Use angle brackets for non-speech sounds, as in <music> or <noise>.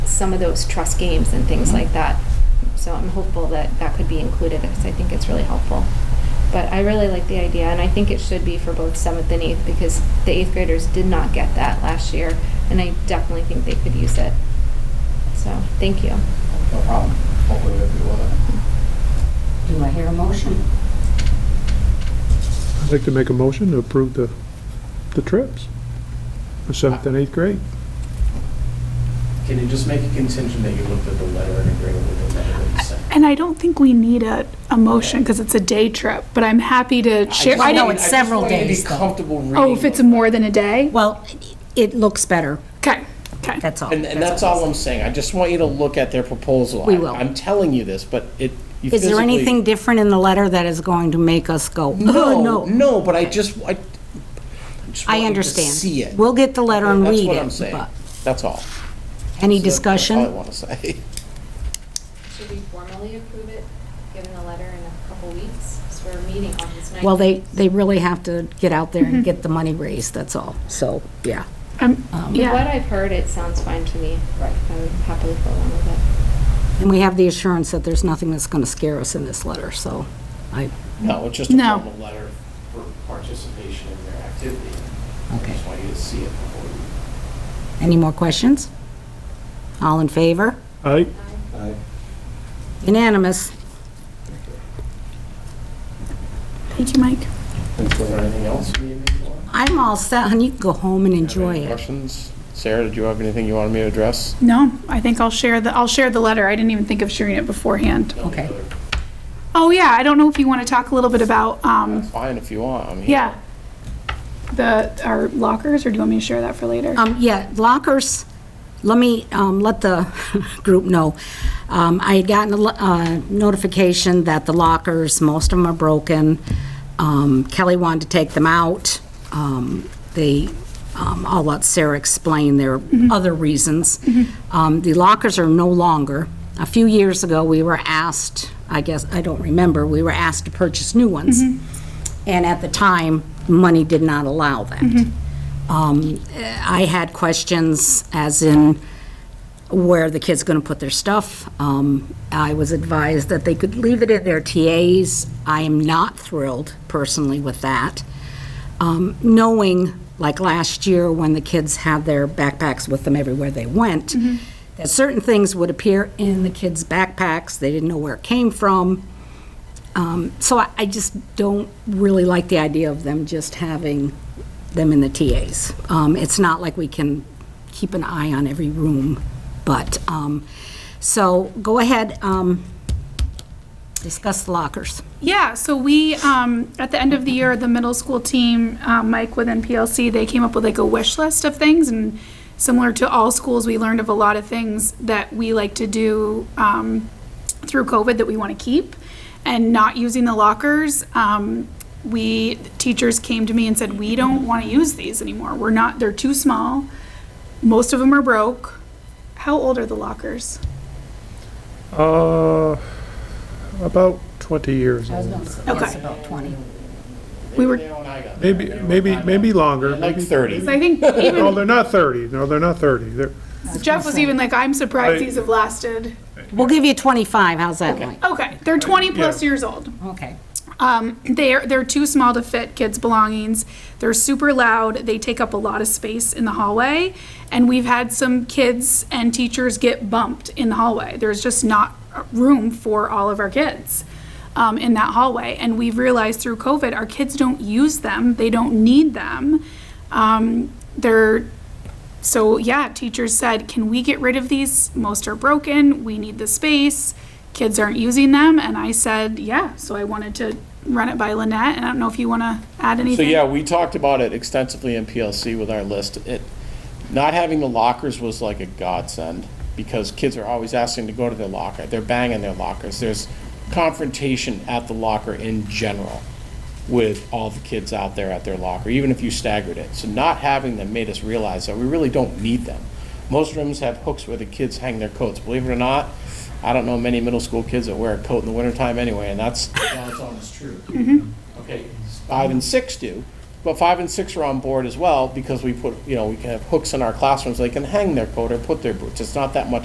some of those trust games and Mm-hmm. things like that. So I'm hopeful that that could be included because I think it's really helpful. But I really like the idea, and I think it should be for both seventh and eighth because the eighth graders did not get that last year, and I definitely think they could use it. So thank you. No problem. Hopefully we'll be with it. Do I hear a motion? I'd like to make a motion to approve the, the trips for seventh and eighth grade. Can you just make a contingent that you looked at the letter and agree with the letter that you sent? And I don't think we need a, a motion because it's a day trip, but I'm happy to share. just I know don't- wanted- it's several I just wanted to days, though. be comfortable reading. Oh, if it's more than a day? Well, it looks better, Okay, okay. that's all. And, and that's all I'm saying. I just want you to look at their proposal. We I- will. I'm telling you this, but it. you Is there physically- anything different in the letter that is going to make us go, oh, <laughs> No, no? no, but I just, I. just want I you to understand. See it. We'll get the letter and That's read what I'm it. saying. but That's all. Any That's all I discussion? want to say. <laughs> Should we formally approve it, given the letter in a couple weeks? Because we're meeting on this night. Well, they, they really have to get out there and get the money raised, that's all. So, yeah. Um, Um, From what Yeah, I've heard, it sounds fine to me. Right. I would happily go along with it. And we have the assurance that there's nothing that's going to scare us in this letter, so I, No, it's just a No. formal letter for participation in their activity. I okay. just want you to see it before you. Any more questions? All in favor? Aye. Unanimous. thank you, Mike. Is there anything else you need me for? I'm all set, and you can go home and enjoy Any it. Questions? Sarah, did you have anything you wanted me to address? No, I think I'll share the, I'll share the letter. I didn't even think of sharing it beforehand. Okay. Oh, yeah, I don't know if you want to talk a little bit about, That's um, fine if you want, I'm here. yeah, the, our lockers, or do you want me to share that for later? Um, yeah, lockers, let me, um, let the <laughs> group know. Um, I had gotten a lo- uh, notification that the lockers, most of them are broken. Um, Kelly wanted to take them out. Um, they, um, I'll let Sarah explain their other reasons. Um, the lockers are no longer. A few years ago, we were asked, I guess, I don't remember, we were asked to purchase new ones. And at the time, money did not allow that. Um, I had questions as in where the kids going to put their stuff. Um, I was advised that they could leave it in their TAs. I am not thrilled personally with that. Um, knowing, like last year, when the kids had their backpacks with them everywhere they went, that certain things would appear in the kids' backpacks, they didn't know where it came from. Um, So I, I just don't really like the idea of them just having them in the TAs. Um, It's not like we can keep an eye on every room, but, um, so go ahead, um, discuss the lockers. Yeah, so we, um, at the end of the year, the middle school team, um, Mike within PLC, they came up with like a wish list of things. And similar to all schools, we learned of a lot of things that we like to do um, through COVID that we want to keep. And not using the lockers, um, we, teachers came to me and said, we don't want to use these anymore. We're not, they're too small. Most of them are broke. How old are the lockers? Uh, about 20 years old. Okay. about 20. We were, They were when I got there. Maybe, They were maybe, when I got maybe there. longer. Like Maybe- 30. I think No, even they're not 30. No, they're not 30. They're, Jeff was even like, I'm I- surprised these have lasted. We'll give you 25, how's that like? Okay, they're 20 plus years old. Okay. Um, they're they're too small to fit kids' belongings. They're super loud. They take up a lot of space in the hallway, and we've had some kids and teachers get bumped in the hallway. There's just not room for all of our kids um, in that hallway, and we've realized through COVID, our kids don't use them. They don't need them. Um, they're so yeah, teachers said, can we get rid of these? Most are broken. We need the space. Kids aren't using them. And I said, yeah. So I wanted to run it by Lynette. And I don't know if you want to add So anything. yeah, we talked about it extensively in PLC with our list. It, not having the lockers was like a godsend because kids are always asking to go to their locker. They're banging their lockers. There's confrontation at the locker in general with all the kids out there at their locker, even if you staggered it. So not having them made us realize that we really don't need them. Most rooms have hooks where the kids hang their coats. Believe it or not, I don't know many middle school kids that wear a coat in the wintertime anyway, and that's, that's almost true. Okay, five and six do, but five and six are on board as well, because we put, you know, we can have hooks in our classrooms, they can hang their coat or put their boots, it's not that much